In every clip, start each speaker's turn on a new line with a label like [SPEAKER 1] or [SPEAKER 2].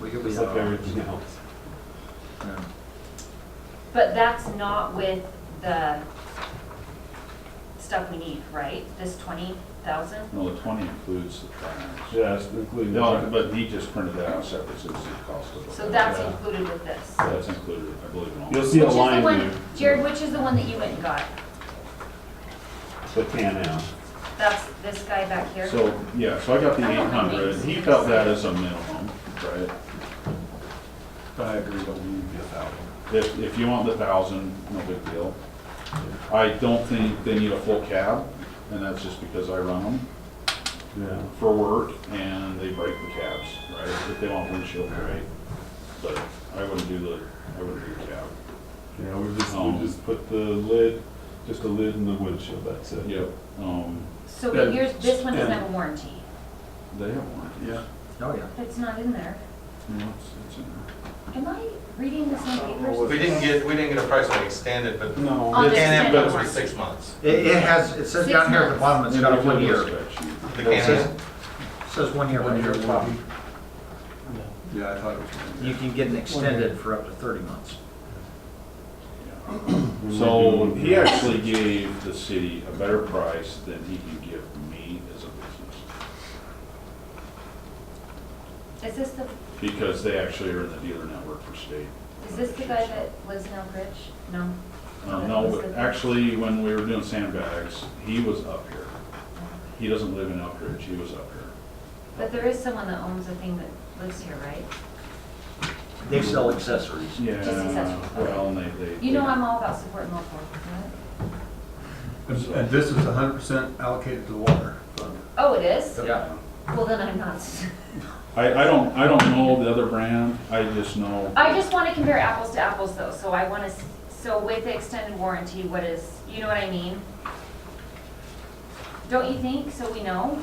[SPEAKER 1] Well, you'll be
[SPEAKER 2] Just
[SPEAKER 1] out.
[SPEAKER 2] like everything else.
[SPEAKER 1] Yeah.
[SPEAKER 3] But that's not with the stuff we need, right? This twenty thousand?
[SPEAKER 4] No, the twenty includes the tires.
[SPEAKER 2] Yes, including.
[SPEAKER 4] No, but he just printed that out separate, so it's the cost of it.
[SPEAKER 3] So that's
[SPEAKER 2] Yeah.
[SPEAKER 3] included with this.
[SPEAKER 4] That's included, I believe, in all.
[SPEAKER 2] You'll see a
[SPEAKER 3] Which is the
[SPEAKER 2] line
[SPEAKER 3] one-
[SPEAKER 2] there,
[SPEAKER 3] Jared, which is the one that you went and got?
[SPEAKER 2] the tan out.
[SPEAKER 3] That's this guy back here?
[SPEAKER 4] So, yeah, so I got the
[SPEAKER 3] I don't
[SPEAKER 4] eight
[SPEAKER 3] know the
[SPEAKER 4] hundred,
[SPEAKER 3] names.
[SPEAKER 4] he felt that as a minimum, right?
[SPEAKER 1] I agree, but we need to be a thousand.
[SPEAKER 4] If, if you want the thousand, no big deal. I don't think they need a full cab, and that's just because I run them
[SPEAKER 2] Yeah.
[SPEAKER 4] for work, and they break the cabs, right? If they want windshield, right? But I wouldn't do the, I wouldn't do cab.
[SPEAKER 2] Yeah, we just, we
[SPEAKER 4] Um,
[SPEAKER 2] just put the lid, just the lid and the windshield, that's it.
[SPEAKER 4] Yep. Um,
[SPEAKER 3] So but
[SPEAKER 4] Yeah.
[SPEAKER 3] yours, this one doesn't
[SPEAKER 4] Yeah.
[SPEAKER 3] have a warranty.
[SPEAKER 4] they have warranty. Yeah.
[SPEAKER 1] Oh, yeah.
[SPEAKER 3] It's not in there.
[SPEAKER 4] It's, it's in there.
[SPEAKER 3] Am I reading this on papers?
[SPEAKER 5] Oh, We didn't get, we didn't get a price on extended, but
[SPEAKER 2] No.
[SPEAKER 3] On
[SPEAKER 5] the
[SPEAKER 3] the
[SPEAKER 5] Can-Am
[SPEAKER 3] extended
[SPEAKER 5] goes for
[SPEAKER 3] one.
[SPEAKER 5] six months.
[SPEAKER 6] It, it has, it says down here at the bottom, it's got a one year, it
[SPEAKER 5] The
[SPEAKER 6] It says-
[SPEAKER 5] Can-Am,
[SPEAKER 6] says one year right here at the bottom.
[SPEAKER 1] Yeah, I thought it was. gonna be-
[SPEAKER 6] You can get an extended for up to thirty months.
[SPEAKER 4] So he actually gave the city a better price than he can give me as a business,
[SPEAKER 3] Is this the,
[SPEAKER 4] because they actually are in the dealer network for state.
[SPEAKER 3] is this the guy that lives in Elk Ridge? No.
[SPEAKER 4] Uh, No, but actually, when we were doing sandbags, he was up here. He doesn't live in Elk Ridge, he was up here.
[SPEAKER 3] But there is someone that owns a thing that lives here, right?
[SPEAKER 6] They sell accessories.
[SPEAKER 3] Just accessories,
[SPEAKER 4] Yeah,
[SPEAKER 3] okay.
[SPEAKER 4] well, and they, they.
[SPEAKER 3] You know I'm all about supporting local, right?
[SPEAKER 1] And and this is hundred percent allocated to the water fund.
[SPEAKER 3] Oh, it is?
[SPEAKER 6] Yeah.
[SPEAKER 3] Well, then I'm not.
[SPEAKER 4] I, I don't, I don't know the other brand, I just know.
[SPEAKER 3] I just want to compare apples to apples though, so I want to, so with the extended warranty, what is, you know what I mean? Don't you think, so we know?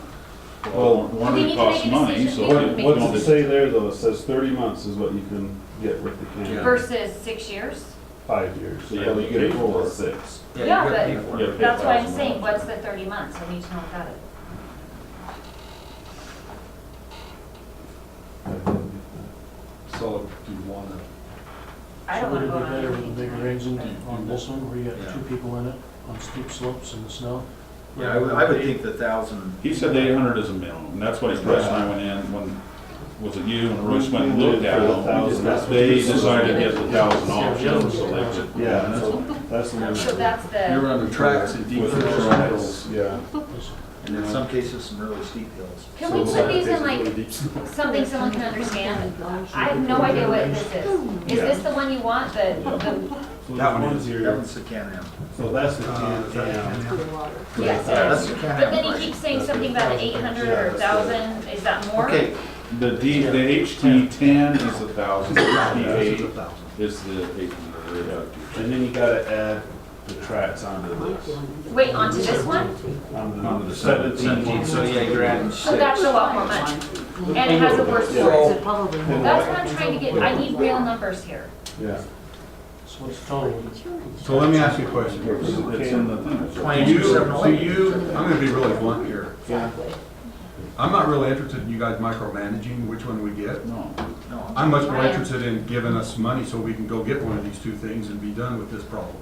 [SPEAKER 4] Well, one
[SPEAKER 3] We
[SPEAKER 4] of
[SPEAKER 3] need
[SPEAKER 4] it
[SPEAKER 3] to make
[SPEAKER 4] costs
[SPEAKER 3] a
[SPEAKER 4] money,
[SPEAKER 3] decision.
[SPEAKER 4] so.
[SPEAKER 3] We need to
[SPEAKER 4] you
[SPEAKER 3] make
[SPEAKER 2] What
[SPEAKER 4] know,
[SPEAKER 2] does it
[SPEAKER 4] the-
[SPEAKER 2] say there though? It says thirty months is what you can get with the can,
[SPEAKER 3] Versus six years?
[SPEAKER 2] five years.
[SPEAKER 4] So you
[SPEAKER 2] you get it
[SPEAKER 4] pay for
[SPEAKER 2] for
[SPEAKER 4] it.
[SPEAKER 2] six.
[SPEAKER 6] you
[SPEAKER 3] Yeah,
[SPEAKER 6] gotta pay
[SPEAKER 3] but-
[SPEAKER 6] for it.
[SPEAKER 4] you gotta pay
[SPEAKER 3] That's why I'm
[SPEAKER 4] 1,000
[SPEAKER 3] saying,
[SPEAKER 4] dollars.
[SPEAKER 3] what's the thirty months, I need to know about it.
[SPEAKER 1] So do you want to
[SPEAKER 3] I
[SPEAKER 7] So
[SPEAKER 3] don't
[SPEAKER 7] would
[SPEAKER 3] want to
[SPEAKER 7] it
[SPEAKER 3] go on
[SPEAKER 7] be better with a big
[SPEAKER 3] anything.
[SPEAKER 7] range and on this one, where you got
[SPEAKER 6] Yeah.
[SPEAKER 7] two people in it, on steep slopes in the snow?
[SPEAKER 6] Yeah, I would, I would think the thousand,
[SPEAKER 4] He said the eight hundred is a minimum, and that's what his price and I went in, when, was it you and Royce went and looked at
[SPEAKER 2] We did for the
[SPEAKER 4] them?
[SPEAKER 2] thousand.
[SPEAKER 4] They decided to get the thousand off,
[SPEAKER 7] Yeah.
[SPEAKER 4] so they could.
[SPEAKER 2] Yeah, so that's the one.
[SPEAKER 3] So that's
[SPEAKER 1] You're
[SPEAKER 3] the,
[SPEAKER 1] on the tracks and deep.
[SPEAKER 2] With the
[SPEAKER 1] hills.
[SPEAKER 2] trails, yeah.
[SPEAKER 6] and in some cases, some really steep hills.
[SPEAKER 3] can we
[SPEAKER 2] So
[SPEAKER 3] put these in like
[SPEAKER 2] it's really deep.
[SPEAKER 3] something someone can understand? I have no idea what this is. Is this the one you want, the, the,
[SPEAKER 2] That one is
[SPEAKER 6] That
[SPEAKER 2] your,
[SPEAKER 6] one's the Can-Am.
[SPEAKER 2] so that's the
[SPEAKER 1] Uh,
[SPEAKER 2] can,
[SPEAKER 1] is that
[SPEAKER 2] yeah.
[SPEAKER 3] yes,
[SPEAKER 6] Yeah,
[SPEAKER 3] it is.
[SPEAKER 6] that's the
[SPEAKER 3] But
[SPEAKER 6] Can-Am
[SPEAKER 3] then he
[SPEAKER 6] price.
[SPEAKER 3] keeps saying something about the eight hundred or thousand, is that more?
[SPEAKER 6] Okay,
[SPEAKER 4] The D, the HT ten is the thousand, the
[SPEAKER 1] This is a
[SPEAKER 4] HT
[SPEAKER 1] thousand.
[SPEAKER 4] eight is the eight hundred.
[SPEAKER 2] And then you gotta add the tracks onto this,
[SPEAKER 3] Wait, onto this one?
[SPEAKER 2] onto the- onto the seventeen.
[SPEAKER 6] so yeah, you're adding
[SPEAKER 3] So
[SPEAKER 6] six.
[SPEAKER 3] Oh, that's a lot more money. And it has a worse story.
[SPEAKER 8] It probably won't.
[SPEAKER 3] That's what I'm trying to get, I need real numbers here.
[SPEAKER 2] Yeah.
[SPEAKER 7] So what's total?
[SPEAKER 1] So let me ask you a question.
[SPEAKER 4] It's it's in the thing. it's-
[SPEAKER 1] You,
[SPEAKER 6] Twenty-two, seven,
[SPEAKER 1] so
[SPEAKER 6] eleven.
[SPEAKER 1] you, I'm gonna be really blunt here. I'm not really interested in you guys micromanaging which one we get.
[SPEAKER 4] No,
[SPEAKER 6] No,
[SPEAKER 1] I'm much more
[SPEAKER 3] I am.
[SPEAKER 1] interested in giving us money so we can go get one of these two things and be done with this problem.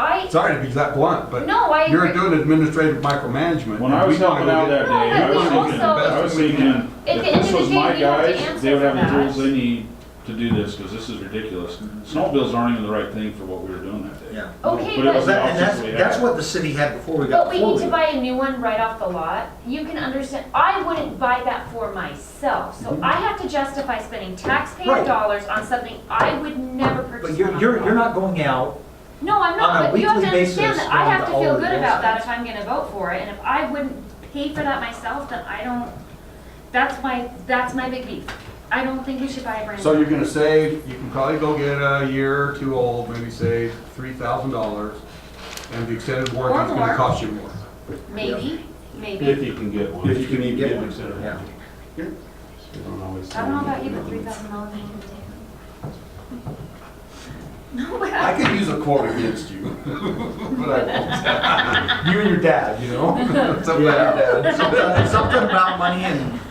[SPEAKER 3] I,
[SPEAKER 1] Sorry to be that blunt, but
[SPEAKER 3] no, I
[SPEAKER 1] you're
[SPEAKER 3] agree.
[SPEAKER 1] doing administrative micromanagement.
[SPEAKER 4] when I
[SPEAKER 1] and
[SPEAKER 4] was
[SPEAKER 1] we wanna
[SPEAKER 4] helping
[SPEAKER 1] go
[SPEAKER 4] out
[SPEAKER 1] get-
[SPEAKER 4] that day, I
[SPEAKER 3] No,
[SPEAKER 4] was
[SPEAKER 3] but
[SPEAKER 4] thinking,
[SPEAKER 3] also-
[SPEAKER 4] I was thinking,
[SPEAKER 3] At the
[SPEAKER 4] if
[SPEAKER 3] end of
[SPEAKER 4] this
[SPEAKER 3] the
[SPEAKER 4] was
[SPEAKER 3] day,
[SPEAKER 4] my
[SPEAKER 3] we have to
[SPEAKER 4] guys, they
[SPEAKER 3] answer
[SPEAKER 4] would have
[SPEAKER 3] for
[SPEAKER 4] the tools
[SPEAKER 3] that.
[SPEAKER 4] they need to do this, because this is ridiculous. Snow bills aren't even the right thing for what we were doing that day.
[SPEAKER 6] yeah.
[SPEAKER 3] Okay,
[SPEAKER 4] But it was
[SPEAKER 3] but,
[SPEAKER 4] an
[SPEAKER 6] That- And that's,
[SPEAKER 4] option we had.
[SPEAKER 6] that's what the city had before we
[SPEAKER 3] but
[SPEAKER 6] got
[SPEAKER 3] we need to
[SPEAKER 6] forward.
[SPEAKER 3] buy a new one right off the lot. You can understand, I wouldn't buy that for myself. So I have to justify spending taxpayer
[SPEAKER 6] Mm-hmm. Right.
[SPEAKER 3] dollars on something I would never purchase.
[SPEAKER 6] But you're,
[SPEAKER 3] off the
[SPEAKER 6] you're,
[SPEAKER 3] lot.
[SPEAKER 6] you're not going out,
[SPEAKER 3] No, I'm
[SPEAKER 6] on
[SPEAKER 3] not,
[SPEAKER 6] a
[SPEAKER 3] but you have to
[SPEAKER 6] weekly basis
[SPEAKER 3] understand that I
[SPEAKER 6] going
[SPEAKER 3] have
[SPEAKER 6] to
[SPEAKER 3] to feel
[SPEAKER 6] all
[SPEAKER 3] good
[SPEAKER 6] the
[SPEAKER 3] about that
[SPEAKER 6] websites.
[SPEAKER 3] if I'm gonna vote for it, and if I wouldn't pay for that myself, then I don't, that's my, that's my big beef. I don't think we should buy a brand.
[SPEAKER 1] So
[SPEAKER 3] new-
[SPEAKER 1] you're gonna save, you can probably go get a year or two old, maybe save three thousand dollars, and the extended warranty's
[SPEAKER 3] more.
[SPEAKER 1] gonna cost you more.
[SPEAKER 3] Maybe, maybe.
[SPEAKER 2] If you can get one.
[SPEAKER 4] If you can even get one.
[SPEAKER 6] yeah.
[SPEAKER 2] You don't always.
[SPEAKER 3] I don't know about you, but three thousand dollars ain't gonna do it. No, but
[SPEAKER 1] I
[SPEAKER 3] I,
[SPEAKER 1] could use a quote against you. But I won't. You and your dad, you know? Something about your dad.
[SPEAKER 6] Something something about money and